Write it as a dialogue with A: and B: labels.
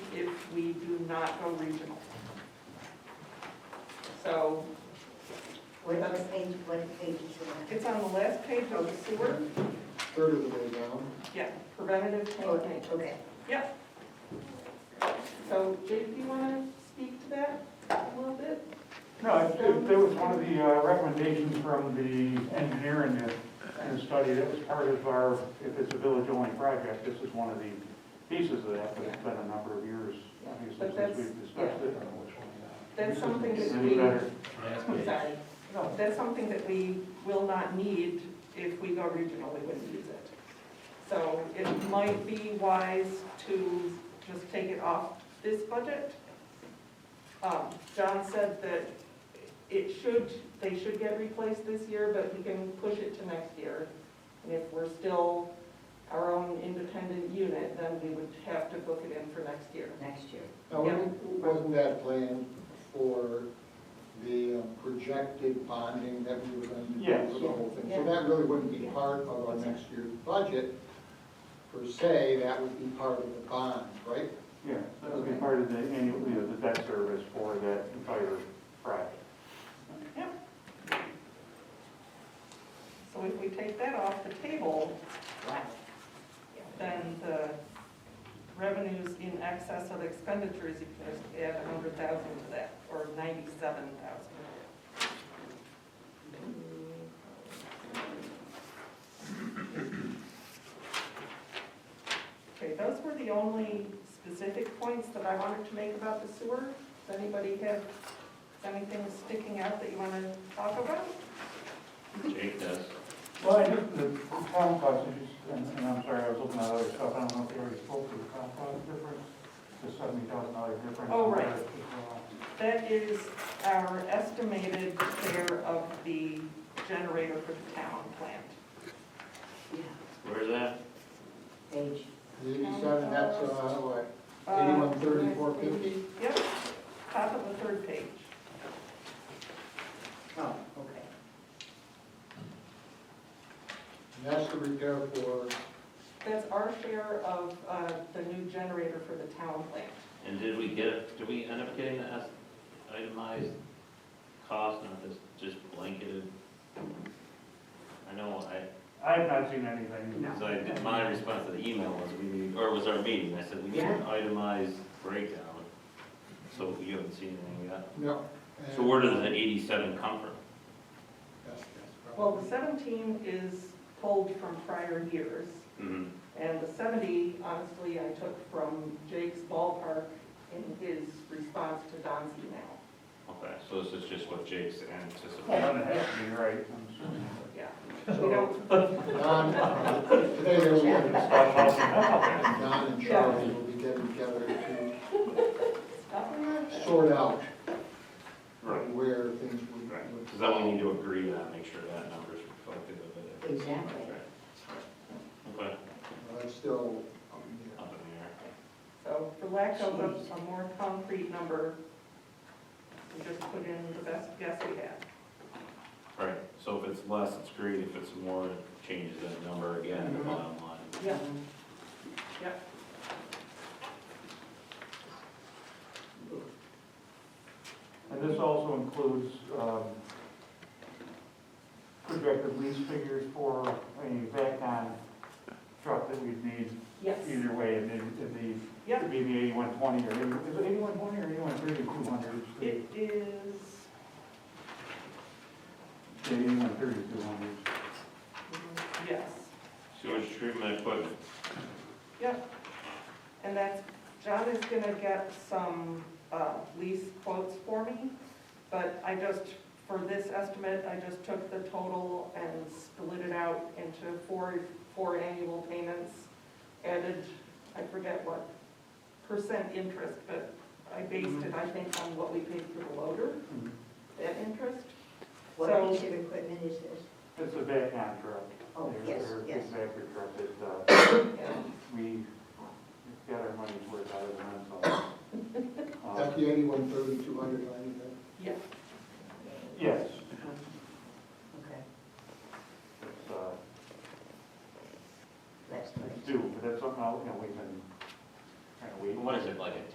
A: we do not go regional. So
B: What about the page, what page is it
A: it's on the last page of the sewer,
C: Third of the way down.
A: yeah, preventative
B: on?
A: tank
B: Okay, Oh, okay.
A: Yep. So Jake, do you want to speak to that a little bit?
D: No, it- it that was one of the uh, recommendations from the engineer in the, in the study that was part of our, if it's a village-only project, this is one of the pieces of that, but it's been a number of years, obviously,
A: But that's-
D: since we've discussed it.
A: That's something that
D: Any better?
A: we, sorry, no, that's something that we will not need if we go regional, we wouldn't use it. So it might be wise to just take it off this budget. Um, John said that it should, they should get replaced this year, but we can push it to next year. And if we're still our own independent unit, then we would have to book it in for next year.
B: Next year.
C: Now, wasn't- wasn't that planned for the um, projected bonding that we were going to do
D: Yes.
C: for the whole thing?
A: Yeah.
C: So that really wouldn't be part of our next year's budget per se, that would be part of the bond, right?
D: Yeah, that would be part of the annual, you know, the debt service for that entire project.
A: So if we take that off the table,
B: Wow.
A: then the revenues in excess of expenditures, you can just add a hundred thousand to that, or ninety-seven thousand. Okay, those were the only specific points that I wanted to make about the sewer. Does anybody have, is anything sticking out that you want to talk about?
E: Jake does.
D: Well, I think the town cost, is just- and and I'm sorry, I was looking at other stuff, I don't know if you already spoke to the town cost difference, the seventy thousand dollar difference.
A: Oh, right.
D: compared to,
A: That is our estimated share of the generator for the town plant.
B: Yeah.
E: Where's that?
B: Page.
C: The Eighty-seven, that's, uh, what, eighty-one thirty, four fifty?
A: Uh, Yep, top of the third page.
B: Oh, okay.
C: And that's the repair for,
A: That's our share of uh, the new generator for the town plant.
E: And did we get, it? did we end up getting the es- itemized cost, not this just blanketed? I know, I,
D: uh, I have not seen anything.
E: so I, my response to the email was we need, or was our meeting, I said we need an itemized breakdown. So you haven't seen anything yet.
C: no. and-
E: So where does the eighty-seven come from?
C: Yes, yes,
A: Well, the 17 is pulled from prior years,
E: Mhm.
A: and the 70, honestly, I took from Jake's ballpark in his response to Don's email.
E: Okay, so this is just what Jake's
D: Well,
E: anticipating.
D: then it has to be right. I'm assuming.
A: Yeah, we
C: So,
A: don't,
C: Don, today there's
D: It's about possible.
C: Don and Charlie will be getting together to
A: stop it.
C: sort out
E: Right,
C: where things would.
E: right.
C: would-
E: Because then we need to agree on, make sure that number's reflective of it.
B: Exactly.
E: Right. Okay,
C: Well, That's still, um, yeah.
E: up in the air.
A: So for lack of a,
B: Jeez.
A: a more concrete number, we just put in the best guess we have.
E: Right, so if it's less, it's great, if it's more, it changes that number again, the bottom line.
A: Yeah.
D: And this also includes um, projected lease figures for a back-on truck that we'd need
A: Yes,
D: either way, and it'd it'd be,
A: Yeah.
D: it'd be the eighty-one twenty, or, 80 is it eighty-one twenty or eighty-one thirty, two hundred?
A: it is,
D: Eighty-one thirty, two hundred.
A: yes,
E: Sewage treatment equipment.
A: and that's, John is gonna get some, uh, lease quotes for me, but I just, for this estimate, I just took the total and split it out into four, four annual payments, added, I forget what percent interest, but I based it, I think, on what we paid for the loader. that interest.
B: What
A: So-
B: piece of equipment is this?
D: It's a back-on truck.
B: Oh,
D: Their-
B: yes,
D: their
B: yes.
D: Backer truck that, uh,
A: And
D: we got our money's worth out of them, so. uh,
C: Is that the eighty-one thirty, two hundred line, is that?
A: Yes,
D: uh,